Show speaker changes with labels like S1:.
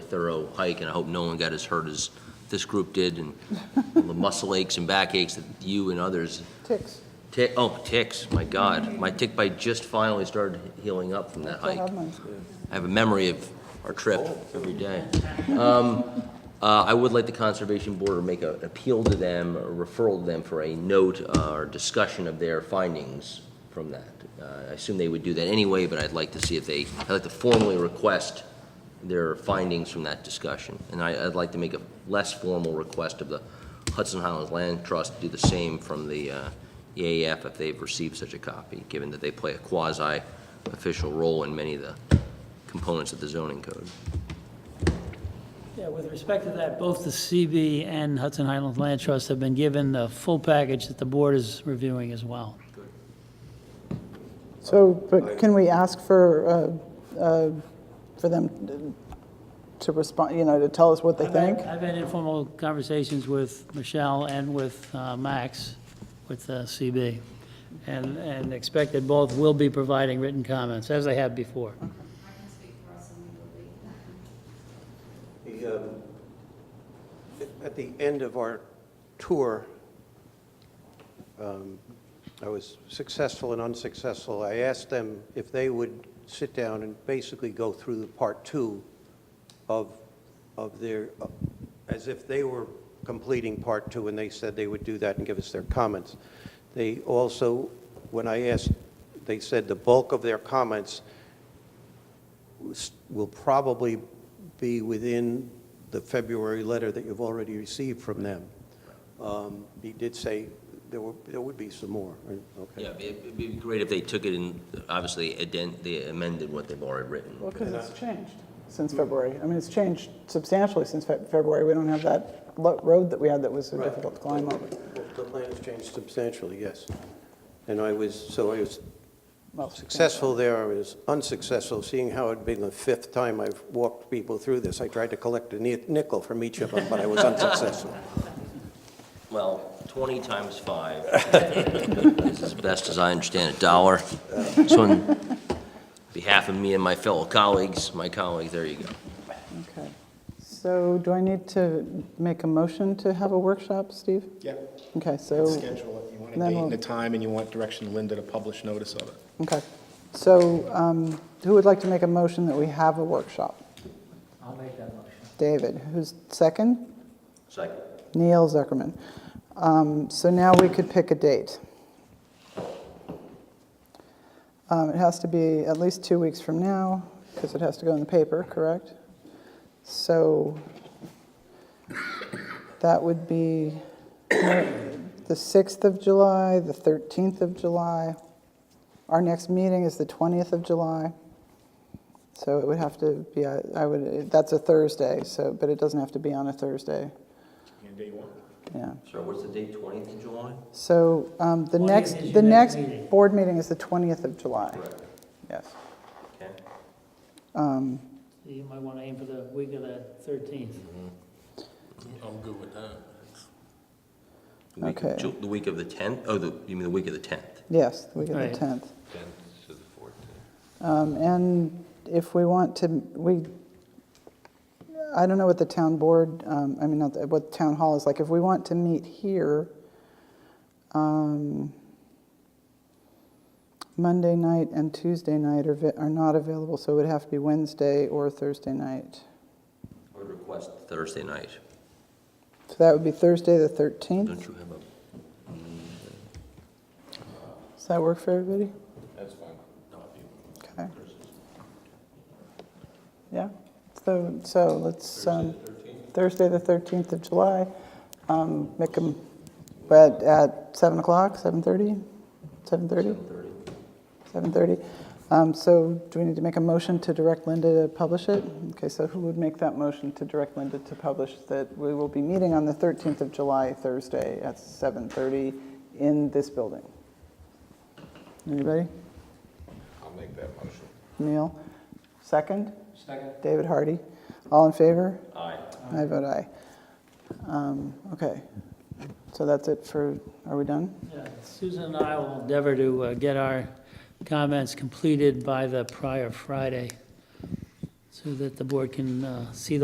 S1: thorough hike, and I hope no one got as hurt as this group did, and all the muscle aches and back aches that you and others,
S2: Ticks.
S1: tick, oh, ticks, my God. My tick bite just finally started healing up from that
S2: I
S1: hike.
S2: have mine.
S1: I have a memory of our trip every day. Um, uh, I would like the Conservation Board to make an appeal to them, a referral to them for a note uh, or discussion of their findings from that. Uh, I assume they would do that anyway, but I'd like to see if they, I'd like to formally request their findings from that discussion. And I, I'd like to make a less formal request of the Hudson Highlands Land Trust to do the same from the uh, EAF if they've received such a copy, given that they play a quasi-official role in many of the components of the zoning code.
S3: Yeah, with respect to that, both the CB and Hudson Highlands Land Trust have been given the full package that the board is reviewing as well.
S2: So, but can we ask for, uh, uh, for them to respond, you know, to tell us what they
S3: I've had-
S2: think?
S3: I've had informal conversations with Michelle and with uh, Max, with uh, CB, and, and expect that both will be providing written comments, as they have before.
S4: I can speak for us and we will be.
S5: The, um, At the end of our tour, um, I was successful and unsuccessful. I asked them if they would sit down and basically go through the part two of, of their, uh, as if they were completing part two, and they said they would do that and give us their comments. They also, when I asked, they said the bulk of their comments s- will probably be within the February letter that you've already received from them. Um, He did say there were, there would be some more, right? okay?
S1: Yeah, it'd be- it'd be great if they took it and obviously aden- they amended what they've already written.
S2: Well, because it's changed since February. I mean, it's changed substantially since Fe- February. We don't have that lo- road that we had that was so
S5: Right.
S2: difficult to climb up.
S5: Well, The plan has changed substantially, yes. And I was, so I was
S2: Well,
S5: successful there, I was unsuccessful, seeing how it'd been the fifth time I've walked people through this. I tried to collect a ni- nickel from each of them, but I was unsuccessful.
S1: Well, 20 times 5 is as best as I understand a dollar. So on behalf of me and my fellow colleagues, my colleagues, there you go.
S2: Okay. So do I need to make a motion to have a workshop, Steve?
S6: Yeah,
S2: Okay, so.
S6: schedule it. You want a
S2: then
S6: date
S2: we'll-
S6: and a time, and you want direction to Linda to publish notice of it.
S2: Okay. So um, who would like to make a motion that we have a workshop?
S3: I'll make that motion.
S2: David, who's second?
S1: Second.
S2: Neil Zuckerman. Um, So now we could pick a date. Um, It has to be at least two weeks from now, because it has to go in the paper, correct? So that would be the 6th of July, the 13th of July. Our next meeting is the 20th of July. So it would have to be, a- I would, that's a Thursday, so, but it doesn't have to be on a Thursday.
S6: And day one.
S2: Yeah,
S1: So what's the date, 20th of July?
S2: so um, the
S3: 20th is
S2: next,
S3: your
S2: the
S3: next
S2: next
S3: meeting.
S2: board meeting is the 20th of July. Yes.
S1: Okay.
S2: Um,
S3: You might want to aim for the week of the 13th.
S1: The week of
S2: Okay.
S1: Ju- The week of the 10th? Oh, the, you mean the week of the 10th?
S2: Yes, the week of the
S3: Right.
S2: 10th. 10th to the 14th. And if we want to, we, I don't know what the town board, um, I mean, not the- what town hall is like. If we want to meet here, um, Monday night and Tuesday night are vi- are not available, so it would have to be Wednesday or Thursday night.
S1: I would request Thursday night.
S2: So that would be Thursday, the 13th.
S1: Don't you have a,
S2: Does that work for everybody? That's fine. Okay. Yeah, so, so let's, um, Thursday, the 13th of July, um, make them, but at 7 o'clock, 7:30? 7:30? 7:30. Um, So do we need to make a motion to direct Linda to publish it? Okay, so who would make that motion to direct Linda to publish that we will be meeting on the 13th of July, Thursday, at 7:30 in this building? Anybody?
S7: I'll make that motion.
S2: Neil? Second? Second. David Hardy? All in favor?
S1: aye.
S2: I vote aye. Um, Okay, so that's it for, are we done?
S3: Yeah, Susan and I will endeavor to uh, get our comments completed by the prior Friday, so that the board can uh, see